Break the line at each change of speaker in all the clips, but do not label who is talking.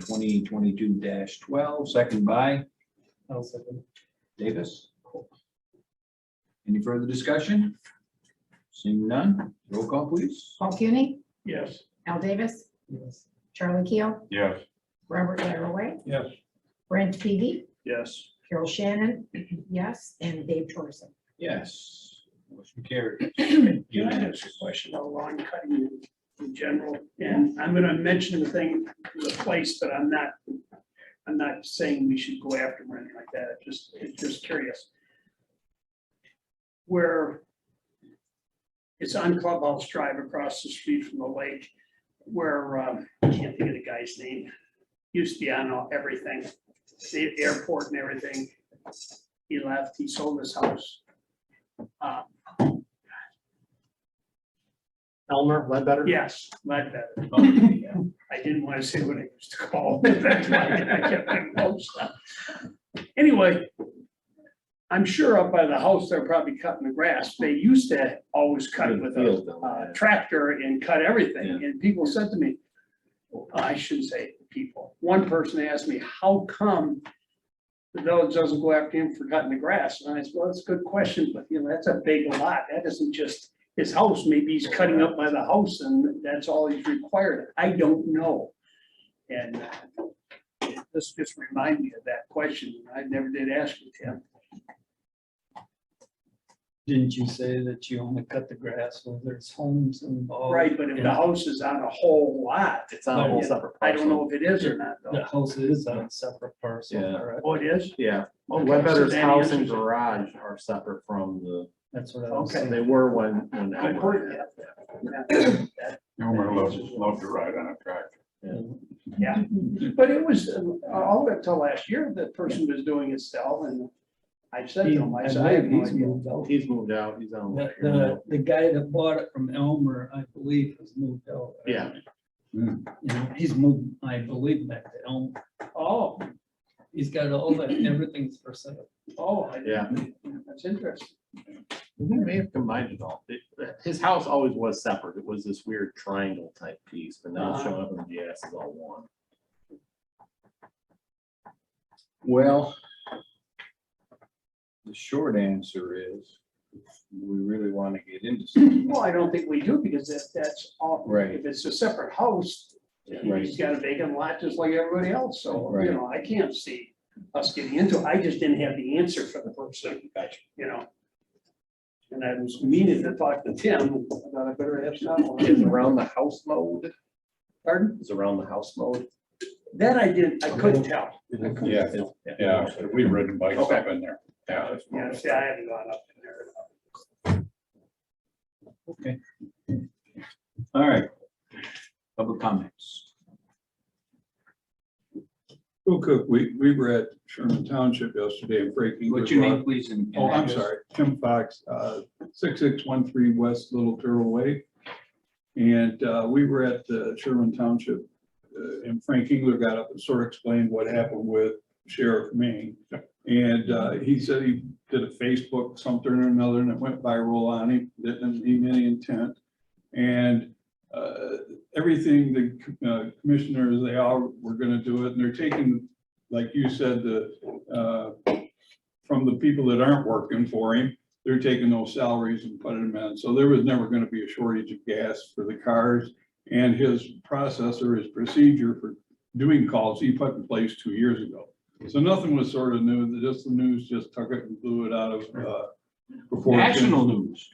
twenty twenty-two twelve, second by
I'll second.
Davis. Any further discussion? Seeing none, roll call please.
Paul Cuny,
Yes.
Al Davis,
Yes.
Charlie Keel,
Yes.
Robert Laraway.
Yes.
Brent Peavy,
Yes.
Carol Shannon, yes, and Dave Torsen.
Yes, motion carried.
Can I ask a question about lawn cutting in- in general? And I'm gonna mention the thing, the place, but I'm not, I'm not saying we should go after them or anything like that. I'm Just, I'm just curious. Where it's on Clubhouse Drive across the street from the lake, where, um, I can't think of the guy's name. Used to be on all- everything, the airport and everything. He left, he sold his house. Uh,
Elmer, Ledbetter?
Yes, like that. I didn't want to say what it used to call. it. That's why I kept my mouth shut. Anyway, I'm sure up by the house, they're probably cutting the grass. They used to always cut it with a uh, tractor and cut everything. And people said to me, I shouldn't say people, one person asked me, how come the village doesn't go after him for cutting the grass? And I said, well, that's a good question, but you know, that's a big lot. That isn't just his house. Maybe he's cutting up by the house and that's all he's required. I don't know. And this just reminded me of that question. I never did ask it to him.
Didn't you say that you only cut the grass when there's homes involved?
Right, but if the house is on a whole lot,
It's on a whole
Yeah.
separate.
I don't know if it is or not
The
though.
house is on a separate parcel,
Yeah.
correct?
Oh, it is?
parcel. Yeah, well,
Okay,
Ledbetter's
so that
house and
answers it.
garage are separate from the,
That's what I was
Okay.
saying.
they were when, when.
I
Elmer-
heard that.
Elmer loves, loves to ride on a tractor.
Yeah, but it was, uh, all up till last year, the person was doing it still, and I said to
He-
him, I
I
said, I have
believe
no
he's
idea.
moved out.
He's moved out, he's on.
The, the, the guy that bought it from Elmer, I believe, has moved out.
Yeah.
You know, he's moved, I believe, back to Elmer.
Oh,
He's got all that, everything's for sale.
oh, I
Yeah.
didn't- that's interesting.
They may have combined it all. It- His house always was separate. It was this weird triangle type piece, but now it's showing up in the GIS is all one.
Well, the short answer is, we really want to get into something.
Well, I don't think we do, because if that's all,
Right.
if it's a separate house, he's
Right.
got a vacant lot just like everybody else, so,
Right.
you know, I can't see us getting into it. I just didn't have the answer for the person, you know? And I was meaning to talk to Tim, about I better ask that
Is
one.
around the house mode,
Pardon?
is around the house mode.
That I didn't, I couldn't tell.
Yeah, yeah, we've ridden bikes up in there. Yeah. it's-
Yeah, see, I haven't gone up in there.
All right. Public comments.
Bill Cook, we, we were at Sherman Township yesterday and Frank. Engler
What's your
brought-
name, please? and-
Oh, I'm sorry, Tim Fox, uh, six six one three West Little Turtle Way. And uh, we were at the Sherman Township, uh, and Frank Engler got up and sort of explained what happened with Sheriff Maine. And uh, he said he did a Facebook something or another, and it went viral on him, didn't mean any intent. And uh, everything the uh, commissioners, they all were gonna do it, and they're taking, like you said, the uh, from the people that aren't working for him. They're taking those salaries and putting them in. So there was never gonna be a shortage of gas for the cars. And his process or his procedure for doing calls, he put in place two years ago. So nothing was sort of new, The- just the news just took it and blew it out of, uh. proportion.
National news.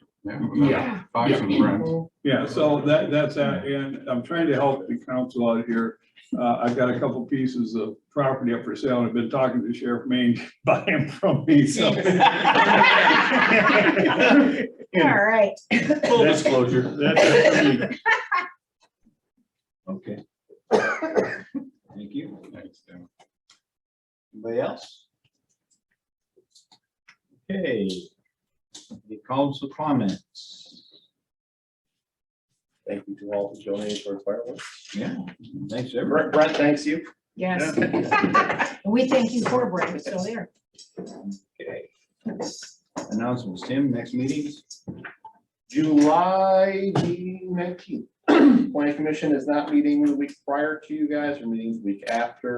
Yeah.
Fox and Friends.
Yeah, so that, that's, that, and I'm trying to help the council out here. Uh, I've got a couple pieces of property up for sale, and I've been talking to Sheriff Maine, buy them from me, so.
All right.
Full disclosure.
That's-
Okay. Thank you. Anybody else? Okay. The council comments.
Thank you to all who donated for fireworks.
Yeah, thanks everyone.
Brent, Brent, thanks you.
Yes, we thank you for Brent, it's still there.
Okay. Announcements, Tim, next meetings?
July nineteenth. planning commission is not meeting the week prior to you guys, or meeting the week after.